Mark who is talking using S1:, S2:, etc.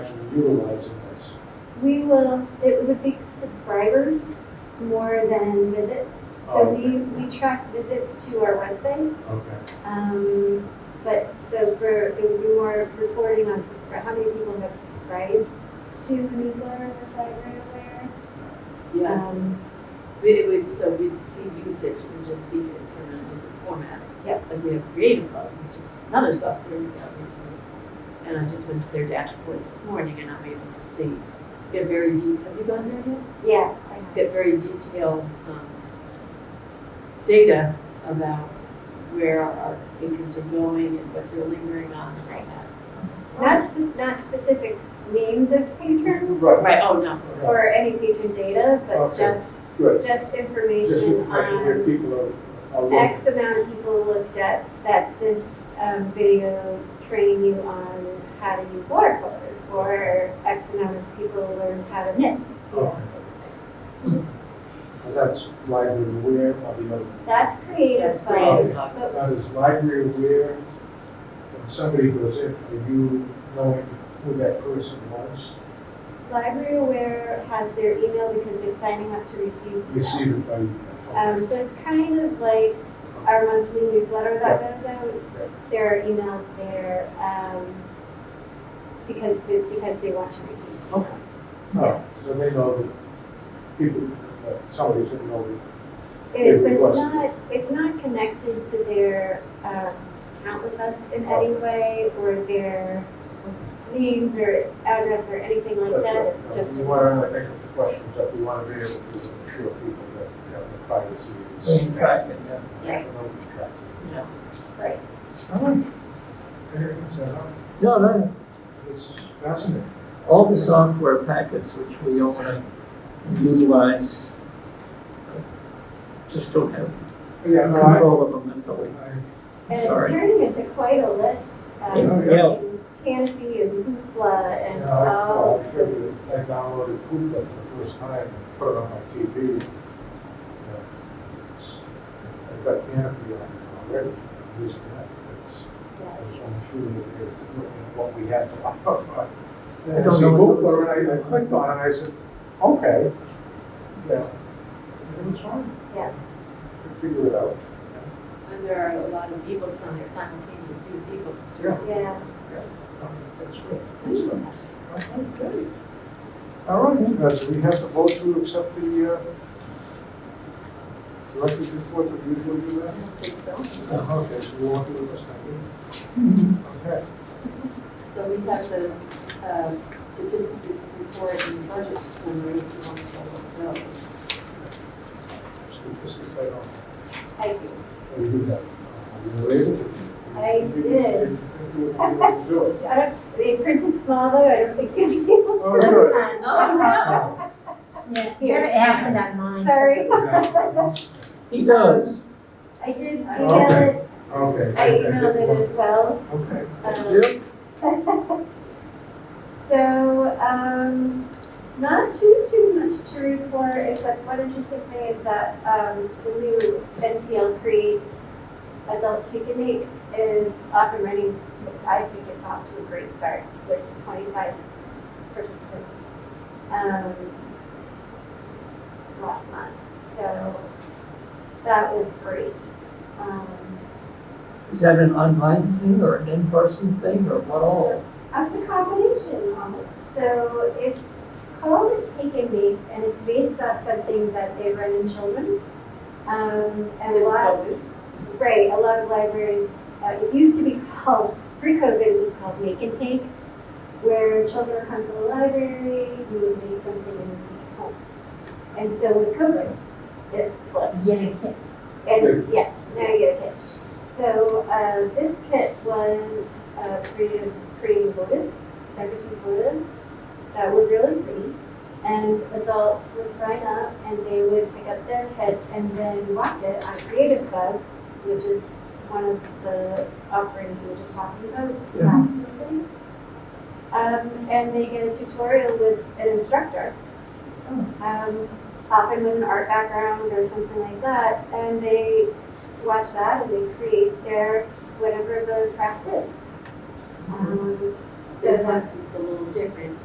S1: utilizing this?
S2: We will, it would be subscribers more than visits. So
S1: Oh.
S2: we, we track visits to our website,
S1: Okay.
S2: um, but so for, it would be more reporting on subscribe, how many people have subscribed to the newsletter of the library aware.
S3: Yeah,
S2: Um,
S3: we, it would, so we'd see usage would just be in a different format.
S2: Yep.
S3: Like we have Creative Cloud, which is another software we got recently. And I just went to their dashboard this morning and I'm able to see, get very deep, have you gone there yet?
S2: yeah, I-
S3: Get very detailed, um, data about where our patrons are going and what they're lingering on and all that. so.
S2: not spe- not specific names of patrons
S1: Right.
S3: Right, oh, no,
S2: or any patron data, but
S1: Okay.
S2: just,
S1: Good.
S2: just
S1: Just
S2: information
S1: refreshing
S2: on
S1: where people are- are, looking.
S2: um, X amount of people looked at that this um, video trained you on how to use watercolors, or X amount of people learned how to knit.
S1: Okay. Now, That's library aware of the other.
S2: That's creative,
S1: Oh,
S3: that's
S2: but,
S3: Creative Cloud.
S2: but
S1: Now, is library aware, when somebody goes in, are you knowing who that person was?
S2: Library Aware has their email because they're signing up to receive
S1: Received
S2: emails.
S1: it by you?
S2: Um, so it's kind of like our monthly newsletter that goes out. There are emails there um, because they, because they want to receive emails.
S1: Oh, so they know that people, that somebody's in know that
S2: It is,
S1: Yeah,
S2: but
S1: it
S2: it's
S1: was.
S2: not, it's not connected to their um, account with us in any way or their names or address or anything like
S1: That's
S2: that.
S1: right.
S2: It's just,
S1: We want to think of the questions that we want to be able to assure people that, you know, the privacy is.
S4: Being tracked, yeah.
S2: Right.
S1: Nobody's tracked.
S3: No.
S2: Right.
S1: All right.
S4: Oh.
S1: Anything else, Adam?
S4: No, no,
S1: It's fascinating.
S4: all the software packets which we own and utilize uh, just don't have
S1: Yeah, no, I-
S4: control of them mentally.
S1: I-
S2: and it's
S4: Sorry.
S2: turning into quite a list. um,
S1: Yeah.
S2: between Canopy and Hoopla
S1: you
S2: and
S1: know, I,
S2: all
S1: well, I
S2: of
S1: should
S2: the,
S1: have- I downloaded Hoopla for the first time and put it on my TV. You know, it's- I've got Canopy on already, I'm using that. It's-
S2: yeah.
S1: I was on the shooting of this, looking at what we had to offer. And
S4: I
S1: I
S4: don't
S1: see
S4: know what those-
S1: Google, and I, I clicked on it, and I said, okay, yeah, it was fine.
S2: Yeah.
S1: Could Figure it out.
S3: And there are a lot of ebooks on there, simultaneous use ebooks too.
S2: Yeah.
S1: That's good.
S3: That's from us.
S1: Okay, great. All right, now, do we have to vote to accept the, uh, selected report that we usually do
S3: I
S1: that?
S3: don't think so.
S1: Uh, Okay, so we won't do it this time.
S2: Mm-hmm.
S1: Okay,
S3: So we have the uh, statistic report and budget summary if you want to follow those.
S1: let's do this instead of,
S2: I do.
S1: we do that. Uh, Were you able to?
S2: I did.
S1: You were able to do it.
S2: I don't, they printed small though, I don't think you'd be able to.
S1: Oh, good.
S3: Oh,
S5: Yeah, it happened on mine.
S2: Sorry,
S4: He does.
S2: I did
S1: Oh, Okay.
S2: email it,
S1: Okay.
S2: I emailed it as well.
S1: Okay.
S2: um,
S4: Yep.
S2: So, um, not too, too much to report, except one interesting thing is that, um, the new NTL creates adult take and make is up and running. I think it's off to a great start with twenty-five participants, um, last month. So that was great. Um,
S4: Is that an online thing or an in-person thing or what all?
S2: It's a combination almost. So it's called a take and make, and it's based on something that they run in children's. Um, and a
S3: Since
S2: lot,
S3: COVID.
S2: right, a lot of libraries, uh, it used to be called, pre-COVID, it was called make and take, where children come to the library, you would make something and you take it home. And so with COVID, it flipped.
S5: Get a kit.
S2: And yes, now you get a kit. So uh, this kit was uh, created, creating motives, decorative motives that were really pretty. And adults would sign up and they would pick up their kit and then watch it on Creative Club, which is one of the offerings we were just talking about,
S4: Yeah.
S2: crafts and things. Um, and they get a tutorial with an instructor. Um, often with an art background or something like that, and they watch that and they create their whatever the craft is. Um, so
S3: This
S2: that-
S3: month it's a little different